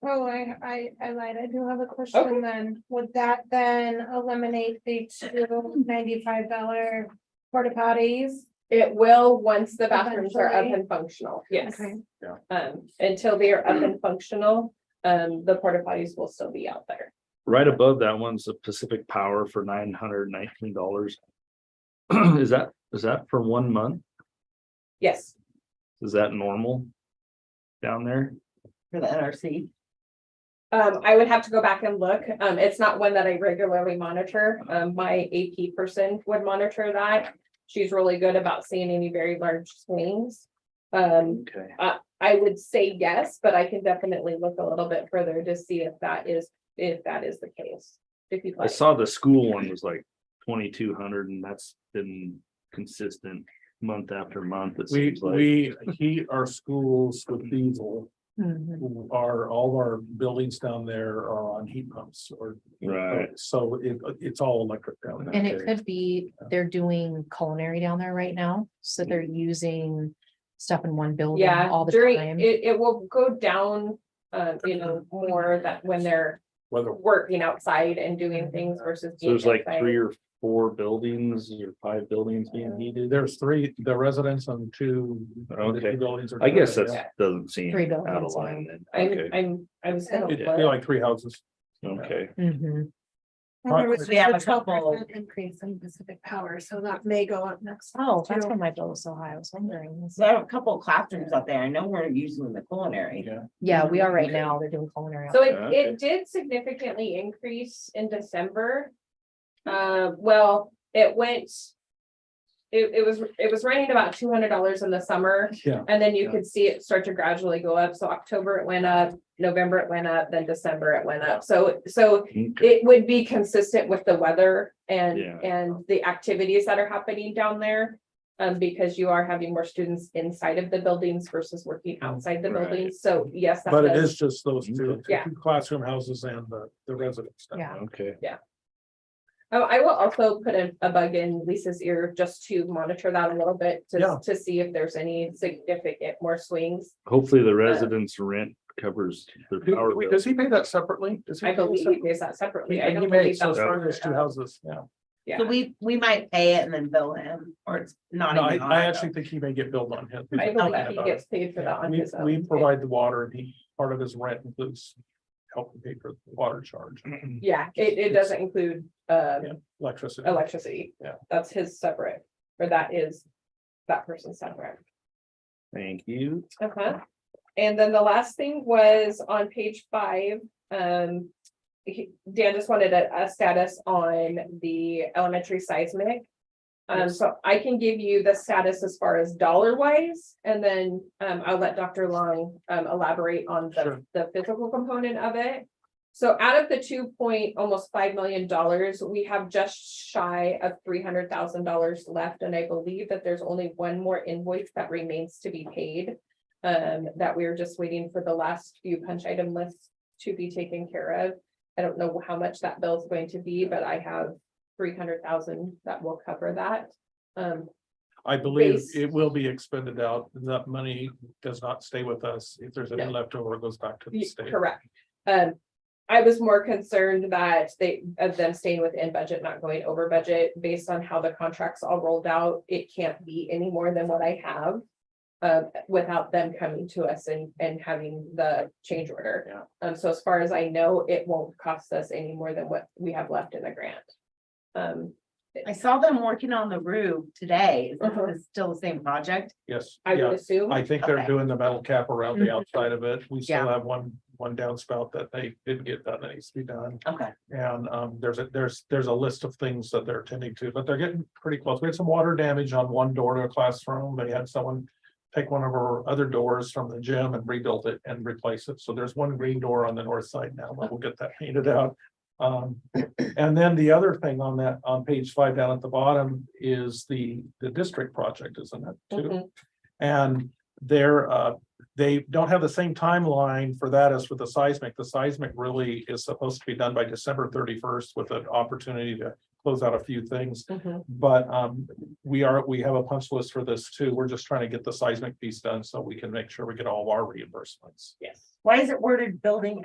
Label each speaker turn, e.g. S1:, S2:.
S1: Oh, I, I, I lied. I do have a question then. Would that then eliminate the two ninety-five dollar porta potties?
S2: It will, once the bathrooms are up
S1: Eventually.
S2: and functional, yes.
S1: Okay.
S3: Yeah.
S2: Um, until they are up and functional, um, the porta potties will still be out there.
S3: Right above that one's the Pacific Power for nine hundred nineteen dollars. Is that, is that for one month?
S2: Yes,
S3: Is that normal? Down there?
S4: for the NRC.
S2: um, I would have to go back and look. Um, it's not one that I regularly monitor. Um, my AP person would monitor that. She's really good about seeing any very large swings. Um,
S3: Okay.
S2: I would say yes, but I can definitely look a little bit further to see if that is, if that is the case. If you'd
S3: I
S2: like,
S3: saw the school one was like twenty-two hundred and that's been consistent month after month. It
S5: We,
S3: seems like.
S5: we heat our schools with diesel.
S4: Mm-hmm.
S5: Our, all our buildings down there are on heat pumps or.
S3: Right.
S5: So it, it's all electric down there.
S6: And it could be, they're doing culinary down there right now, so they're using stuff in one building
S2: yeah,
S6: all the
S2: during,
S6: time.
S2: it, it will go down, uh, you know, more that when they're
S5: Whether,
S2: working outside and doing things versus.
S3: So there's
S2: being
S3: like
S2: inside.
S3: three or four buildings or five buildings being heated.
S5: there's three, the residents on two. the two
S3: Okay.
S5: buildings are-
S3: I guess that's
S2: Yeah.
S3: doesn't seem
S6: Three
S3: out of
S6: buildings,
S3: line then.
S2: I'm,
S3: Okay,
S2: I'm, I was gonna
S5: It'd be
S2: look,
S5: like three houses.
S3: okay.
S6: Mhm.
S1: And there was
S4: We have a
S1: just 12%
S4: couple.
S1: Increase in Pacific Power, so that may go up next.
S6: Oh, that's
S1: too.
S6: why my bill was so high, I was wondering.
S4: So I have a couple of classrooms out there. I know we're using the culinary.
S5: Yeah.
S6: Yeah, we are right now, they're doing culinary. out
S2: so
S3: Yeah,
S2: it,
S3: okay.
S2: it did significantly increase in December. Uh, well, it went. It, it was, it was running about two hundred dollars in the summer.
S5: Yeah.
S2: And then you
S3: Yeah.
S2: could see it start to gradually go up. So October it went up, November it went up, then December it went up. So, so
S3: Okay.
S2: it would be consistent with the weather and,
S3: Yeah.
S2: and the activities that are happening down there. Um, because you are having more students inside of the buildings versus working outside the
S3: Right.
S2: buildings. So yes. that
S5: But it
S2: does-
S5: is just those two,
S2: Yeah.
S5: two classroom houses and the, the residents. down
S6: Yeah.
S3: Okay.
S2: Oh, I will also put a, a bug in Lisa's ear just to monitor that a little bit
S5: Yeah.
S2: to, to see if there's any significant more swings.
S3: Hopefully the residents' rent covers their
S5: there.
S3: power
S5: Wait,
S3: bill.
S5: Does he pay that separately? Does he
S2: I
S5: pay that
S2: believe
S5: separately?
S2: he pays that separately. I
S5: And he
S2: don't
S5: may,
S2: believe
S5: so
S2: that's.
S5: sorry, there's two houses, yeah.
S2: Yeah.
S4: So we, we might pay it and then bill him, or it's not.
S5: No, I,
S4: even on
S5: I
S4: our
S5: actually think he may get billed on him.
S2: I believe he
S5: Yeah.
S2: gets paid for that on
S5: We,
S2: his own.
S5: we provide the water and he, part of his rent includes helping pay for the water charge,
S2: Yeah, it, it doesn't include, uh,
S5: Yeah. electricity.
S2: electricity.
S5: Yeah.
S2: That's his separate, or that is that person's separate.
S3: Thank you.
S2: Uh-huh. And then the last thing was on page five, um. he- Dan just wanted a, a status on the elementary seismic. Um, so I can give you the status as far as dollar wise, and then, um, I'll let Dr. Long, um, elaborate on the,
S5: Sure.
S2: the physical component of it. So out of the two point, almost five million dollars, we have just shy of three hundred thousand dollars left, and I believe that there's only one more invoice that remains to be paid. Um, that we're just waiting for the last few punch item lists to be taken care of. I don't know how much that bill is going to be, but I have three hundred thousand that will cover that. Um,
S5: I believe
S2: base-
S5: it will be expended out. That money does not stay with us. If there's any
S2: No.
S5: leftover, it goes back to the
S2: Ye-
S5: state.
S2: Correct. Um, I was more concerned that they, of them staying within budget, not going over budget, based on how the contracts all rolled out, it can't be any more than what I have. Uh, without them coming to us and, and having the change order. Um, so as far as I know, it won't cost us any more than what we have left in the grant. Um,
S4: I saw them working on the roof today. Is
S2: Uh-huh.
S4: this still the same project?
S5: Yes,
S2: I
S5: yeah.
S2: would assume, Mm-hmm.
S5: I think they're
S4: Okay.
S5: doing the metal cap around the
S6: Mhm.
S5: outside of it. We still
S6: Yeah.
S5: have one, one downspout that they didn't get done that needs to be done.
S4: Okay.
S5: And um, there's a, there's, there's a list of things that they're attending to, but they're getting pretty close. We had some water damage on one door to a classroom. They had someone. Take one of our other doors from the gym and rebuilt it and replace it. So there's one green door on the north side now, but we'll get that painted out. Um, and then the other thing on that, on page five down at the bottom is the, the district project, isn't it? too?
S2: Mhm.
S5: And they're, uh, they don't have the same timeline for that as for the seismic. The seismic really is supposed to be done by December thirty-first with an opportunity to close out a few things.
S2: Mhm.
S5: But um, we are, we have a punch list for this too. We're just trying to get the seismic piece done so we can make sure we get all of our reimbursements.
S2: yes.
S4: Why is it worded building